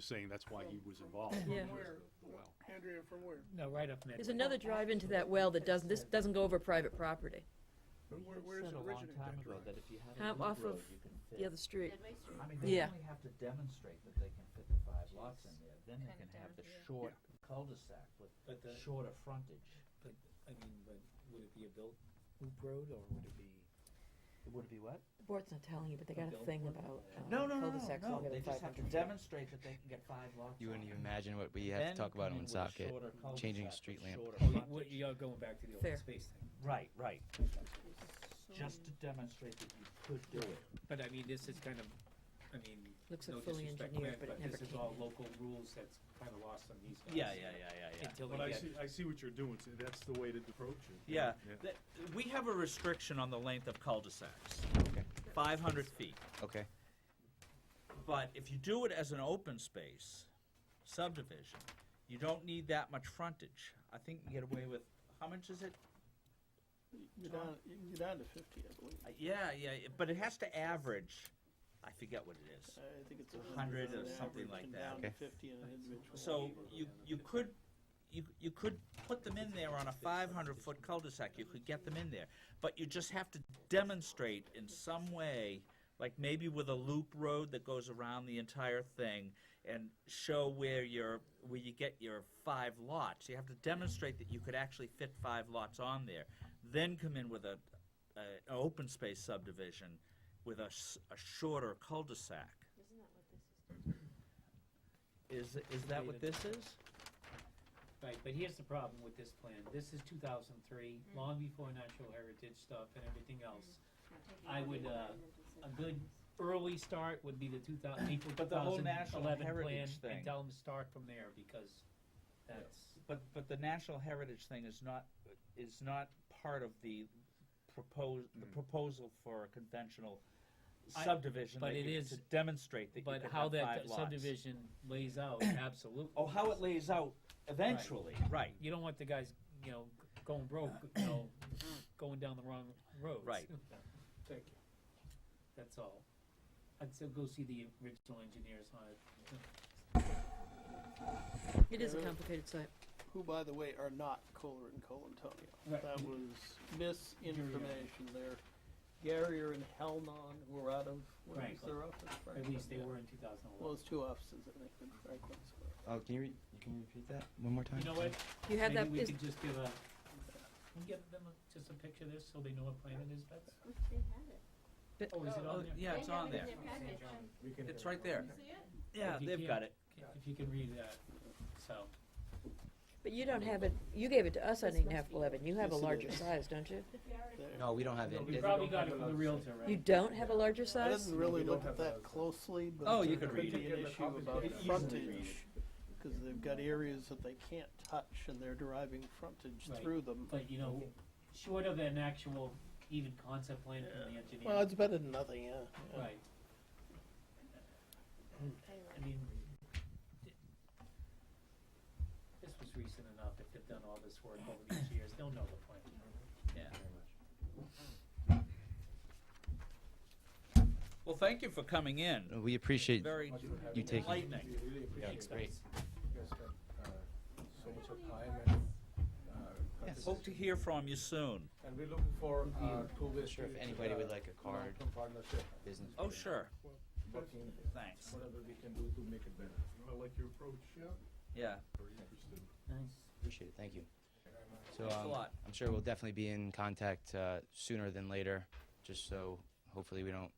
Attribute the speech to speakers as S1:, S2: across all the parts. S1: saying that's why he was involved.
S2: Yeah.
S1: Well,
S3: Andrea, from where?
S4: No, right up Midway.
S2: There's another drive into that well that doesn't, this doesn't go over private property,
S3: Where, where is
S5: said
S3: it
S5: a long
S3: originated?
S5: time
S3: that
S5: ago
S3: drive?
S5: that if you had
S2: Huh,
S5: a loop
S2: off
S5: road,
S2: of
S5: you can
S2: the other
S5: fit.
S2: street.
S6: Deadway Street?
S5: I mean, they
S2: Yeah.
S5: only have to demonstrate that they can fit the five lots in there, then they
S6: Kinda
S5: can have
S6: down
S5: the
S6: here.
S5: short cul-de-sac with
S4: But the-
S5: shorter frontage.
S4: But, I mean, but would it be a built loop road or would it be?
S5: It would be what?
S2: The board's not telling you, but they got a thing about uh,
S5: No, no, no, no,
S2: cul-de-sacs
S5: no,
S2: longer
S5: they
S2: than
S5: just have to
S2: 500 feet.
S5: demonstrate that they can get five lots
S7: You wouldn't
S5: on
S7: even
S5: it.
S7: imagine what we have
S5: Then
S7: to talk about
S5: come
S7: in
S5: in with a
S7: Woonsocket,
S5: shorter
S7: changing
S5: cul-de-sac
S7: street
S5: with
S7: lamp.
S5: shorter
S4: Oh,
S5: frontage.
S4: what, you're going back to the
S2: Fair.
S4: open space thing.
S5: Right, right, just to demonstrate that you could do it.
S4: But I mean, this is kind of, I mean,
S2: Looks
S4: no
S2: like fully
S4: disrespect
S2: engineered,
S4: meant,
S2: but it
S4: but
S2: never
S4: this is
S2: came
S4: all
S2: in.
S4: local rules that's kind of lost on these guys.
S5: yeah,
S4: Until
S1: But
S4: they
S1: I
S4: get,
S1: see, I see what you're doing, so that's the way to approach it.
S8: Yeah, th- we have a restriction on the length of cul-de-sacs,
S7: Okay,
S8: five hundred feet.
S7: okay.
S8: But if you do it as an open space subdivision, you don't need that much frontage. I think you get away with, how much is it?
S3: You're down, you can get down to fifty, I believe.
S8: Uh, Yeah, yeah, yeah, but it has to average, I forget what it is.
S3: I think it's a
S8: 100
S3: hundred
S8: or
S3: on
S8: something
S3: average
S8: like
S3: and
S8: that.
S3: down to
S7: Okay.
S3: fifty in an individual.
S8: So you, you could, you, you could put them in there on a five hundred foot cul-de-sac, you could get them in there. But you just have to demonstrate in some way, like maybe with a loop road that goes around the entire thing and show where your, where you get your five lots. You have to demonstrate that you could actually fit five lots on there. Then come in with a, a, an open space subdivision with a, s- a shorter cul-de-sac.
S6: Isn't that what this is?
S8: Is, is that what this is?
S4: right, but here's the problem with this plan. This is two thousand three,
S2: Mm.
S4: long before natural heritage stuff and everything else.
S6: Not taking
S4: I
S6: all
S4: would,
S6: the
S4: uh, a
S6: environmental side.
S4: good early start would be the two thousand, April two
S8: But the whole
S4: thousand
S8: national
S4: eleven plan,
S8: heritage
S4: and
S8: thing.
S4: tell them to start from there, because that's,
S8: But, but the national heritage thing is not, is not part of the propose, the proposal for a conventional
S4: I-
S8: subdivision.
S4: but
S8: that
S4: it
S8: you-
S4: is-
S8: To demonstrate that you
S4: but
S8: could
S4: how
S8: have
S4: that
S8: five
S4: d-
S8: lots.
S4: subdivision lays out, absolutely.
S8: Oh, how it lays out eventually, right,
S4: You don't want the guys, you know, going broke, you know, going down the wrong roads.
S8: Right.
S3: Thank you.
S4: That's all. I'd still go see the original engineers on it.
S2: It is a complicated site.
S3: Who, by the way, are not Kohler and Colantonio.
S4: Right.
S3: That was misinformation there. Garrier and Helnon were out of, where was
S4: Franklin.
S3: their office?
S4: At
S3: Franklin,
S4: least they
S3: yeah.
S4: were in two thousand
S3: Well,
S4: eleven.
S3: it's two offices, I think, in Franklin's.
S7: Oh, can you, re- you can repeat that one more time?
S4: You know what?
S2: You have that,
S4: Maybe we
S2: is-
S4: could just give a, can we give them a- just a picture of this so they know what plan it is, Betsy?
S6: They had it.
S4: Oh, is it
S8: Oh,
S4: on there?
S8: yeah, it's
S6: They have
S8: on
S6: it in
S8: there,
S6: their package.
S8: it's right there,
S6: See it?
S8: yeah,
S4: If you
S8: they've
S4: can't-
S8: got it.
S4: If you can read that, so.
S2: but you don't have it, you gave it to us on
S6: This
S2: eight and a
S6: must
S2: half
S6: be
S2: eleven. You have a
S3: Yes, it
S2: larger
S3: is.
S2: size, don't you?
S3: There.
S7: No, we don't have it.
S4: We
S7: It-
S4: probably got it from the Realtor, right?
S2: You don't have a larger
S3: I
S2: size?
S3: didn't really look at that closely, but
S8: Oh, you
S3: there
S8: could
S3: could
S8: read
S3: be
S8: it.
S3: an issue about
S8: It's easily
S3: frontage, because they've got areas that they can't touch, and they're deriving frontage
S4: Right.
S3: through them.
S4: But you know, short of an actual even concept plan from the engineer.
S3: Well, it's better than nothing, yeah. yeah.
S4: Right, I mean, th- this was recent enough, if they've done all this work over these years, they'll know the plan.
S8: Yeah. Well, thank you for coming in,
S7: We appreciate
S8: very
S7: you taking,
S8: enlightening.
S4: Thanks, guys.
S1: uh,
S8: Hope to hear from you soon.
S9: And we're looking for uh, two-way
S7: sure if
S9: street,
S7: anybody
S9: uh,
S7: would like a card.
S9: long-term partnership,
S7: business.
S8: Oh, sure,
S9: working,
S8: thanks,
S9: whatever we can do to make it better.
S1: I like your approach,
S8: yeah,
S1: very interesting.
S4: Nice.
S7: Appreciate it, thank you. So,
S8: Thanks a
S7: um,
S8: lot.
S7: I'm sure we'll definitely be in contact, uh, sooner than later, just so hopefully we don't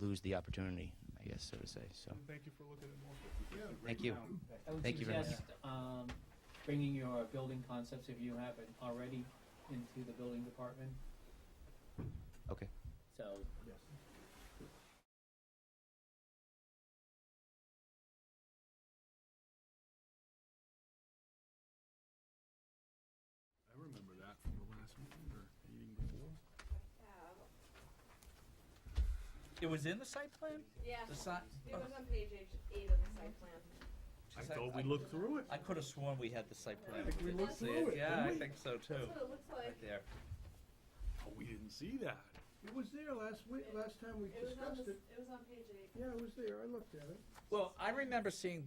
S7: lose the opportunity, I guess, so to say, so.
S1: Thank you for looking at more.
S7: Thank you.
S4: I would
S7: Thank you very much.
S4: suggest, um, bringing your building concepts, if you haven't already, into the building department,
S7: Okay.
S4: so
S1: I remember that from the last meeting or meeting before.
S8: It was in the site plan?
S6: Yeah,
S8: The oh. site?
S6: it was on page eight eight of the site plan.
S1: I thought we looked through it.
S8: I could have sworn we had the site plan.
S1: think we
S8: didn't
S1: looked
S8: see
S1: through it,
S8: Yeah,
S1: didn't
S8: I
S1: we?
S8: think so too.
S6: That's what it looks
S8: Right
S6: like.
S8: there.
S1: Oh, we didn't see that.
S9: It was there last week, last time we
S6: It was on
S9: discussed
S6: this,
S9: it.
S6: it was on page eight.
S9: Yeah, it was there, I looked at it.
S8: Well, I remember seeing